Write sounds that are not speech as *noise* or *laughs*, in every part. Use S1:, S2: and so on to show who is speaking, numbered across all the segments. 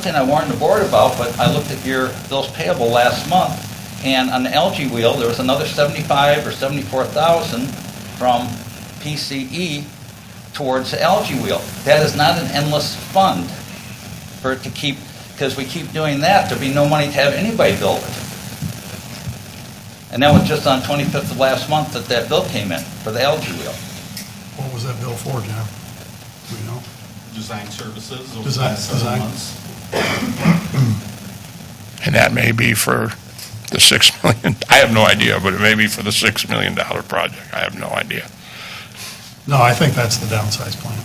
S1: Thing I warned the board about, but I looked at your bills payable last month, and on the algae wheel, there was another 75 or 74,000 from PCE towards the algae wheel. That is not an endless fund for it to keep, because we keep doing that, there'd be no money to have anybody build it. And that was just on 25th of last month that that bill came in for the algae wheel.
S2: What was that bill for, John? Do we know?
S3: design services over the
S2: Design-
S3: last seven
S2: design.
S3: months.
S4: And that may be for the six *laughs* million, I have no idea, but it may be for the six million dollar project, I have no idea.
S2: No, I think that's the downsize plan.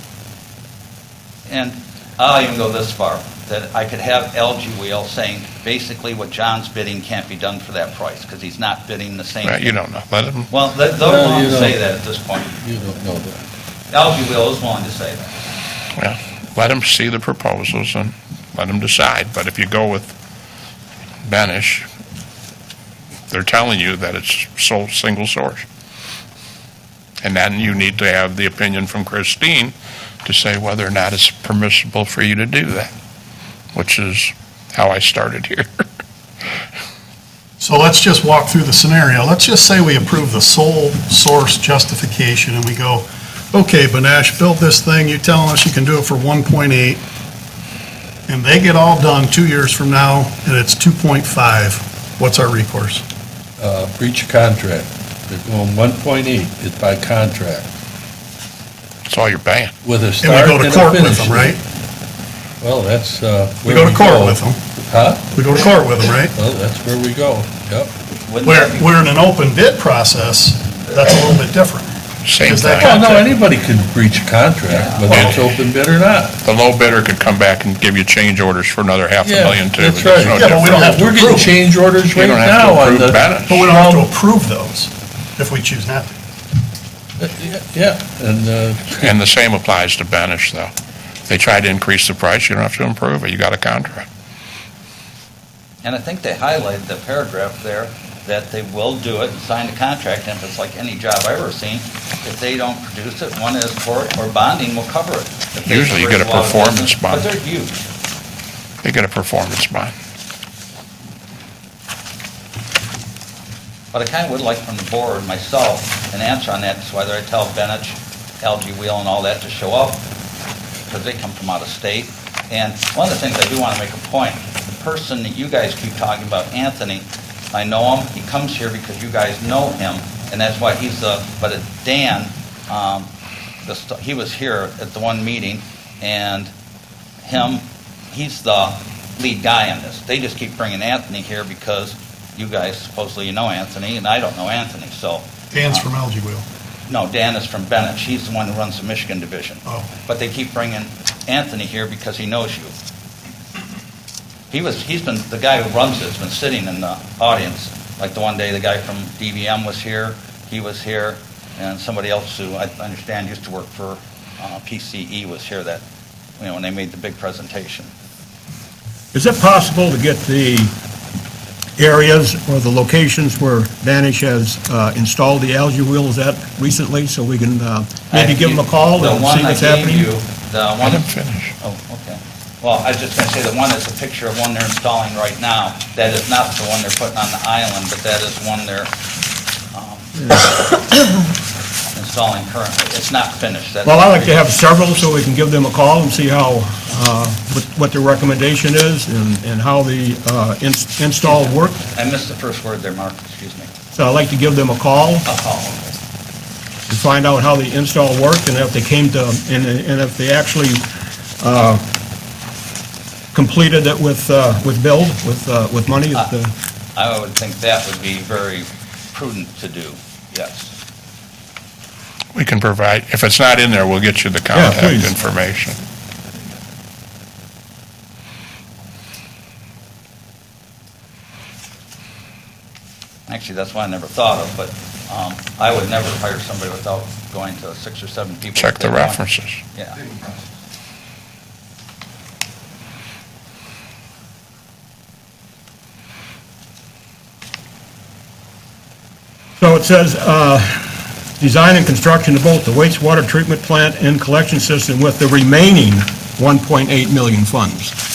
S1: And I'll even go this far, that I could have LG Wheel saying, basically what John's bidding can't be done for that price, because he's not bidding the same.
S4: Right, You don't know, let them,
S1: Well, they- they're
S5: Well,
S1: willing
S5: you
S1: to
S5: know.
S1: say that at this point.
S5: You don't know that.
S1: LG Wheel is willing to say that.
S4: yeah, let them see the proposals and let them decide, but if you go with Banish, they're telling you that it's sole, single source. And then you need to have the opinion from Christine to say whether or not it's permissible for you to do that, which is how I started here. *laughs*
S2: So let's just walk through the scenario. Let's just say we approve the sole source justification and we go, okay, Banash, build this thing, you're telling us you can do it for 1.8, and they get all done two years from now, and it's 2.5. What's our recourse?
S5: Uh, breach of contract. They're going one point eight is by contract
S4: That's all you're paying.
S5: with
S2: And we
S5: a start
S2: go to
S5: and a
S2: court with
S5: finish.
S2: them, right?
S5: Well, that's, uh.
S2: We
S5: where
S2: go to court with them.
S5: Huh?
S2: We go to court with them, right?
S5: Well, that's where we go. Yep.
S1: Wouldn't
S2: Where,
S1: that be-
S2: where in an open bid process, that's a little bit different.
S4: Same
S2: Is that
S4: thing.
S5: Well, no, anybody can breach a contract, whether it's open bid or not.
S4: The low bidder could come back and give you change orders for another half a
S5: Yeah,
S4: million too.
S5: that's
S4: It's
S5: right.
S4: no
S2: Yeah, but we don't
S4: different.
S2: have to
S5: We're getting
S2: approve.
S5: change orders
S4: You
S5: right
S4: don't have to
S5: now on
S4: approve
S5: the.
S4: Bennett.
S2: But we don't have to approve those if we choose not to.
S5: Yeah, and, uh,
S4: And the same applies to Banish, though. If They try to increase the price, you don't have to improve it, you got a contract.
S1: And I think they highlighted the paragraph there, that they will do it, and sign the contract, and if it's like any job I've ever seen, if they don't produce it, one is court or bonding will cover it. If they
S4: Usually you
S1: bring
S4: get a
S1: lot of
S4: performance
S1: business,
S4: bond.
S1: But they're huge.
S4: They get a performance bond.
S1: But I kind of would like from the board, myself, an answer on that, so whether I tell Benich, LG Wheel and all that to show up, because they come from out of state. And one of the things I do want to make a point, the person that you guys keep talking about, Anthony, I know him, he comes here because you guys know him, and that's why he's the, but it- Dan, um, the st- he was here at the one meeting, and him, he's the lead guy on this. They just keep bringing Anthony here because you guys supposedly you know Anthony, and I don't know Anthony, so,
S2: Dan's from Algae Wheel.
S1: no, Dan is from Bennett, he's the one who runs the Michigan division.
S2: Oh.
S1: But they keep bringing Anthony here because he knows you. He was, he's been, the guy who runs it's been sitting in the audience, like the one day the guy from DVM was here, he was here, and somebody else who I understand used to work for uh, PCE was here that, you know, when they made the big presentation.
S6: Is it possible to get the areas or the locations where Banish has uh, installed the algae wheels at recently, so we can uh, maybe give them a call
S1: The
S6: and
S1: one
S6: see what's
S1: I gave you,
S6: happening?
S1: The
S6: *laughs*
S4: Let
S1: one
S4: them finish.
S1: Oh, okay. Well, I was just going to say, the one is a picture of one they're installing right now. That is not the one they're putting on the island, but that is one they're um, *coughs* installing currently. It's not finished. That's-
S6: Well, I like to have several, so we can give them a call and see how, uh, what- what their recommendation is and and how the uh, ins- install worked.
S1: I missed the first word there, Mark, excuse me.
S6: So I'd like to give them a call
S1: I'll call
S6: to find out how the install worked and if they came to, and and if they actually uh, completed it with, uh, with build, with, uh, with money. if the-
S1: I would think that would be very prudent to do, yes.
S4: We can provide, if it's not in there, we'll get you the
S6: Yeah,
S4: contact
S6: please.
S4: information.
S1: Actually, that's one I never thought of, but um, I would never hire somebody without going to six or seven people.
S4: Check
S1: They
S4: the
S1: want-
S4: references.
S1: Yeah.
S6: So it says, uh, "Design and construction of both the wastewater treatment plant and collection system with the remaining 1.8 million funds."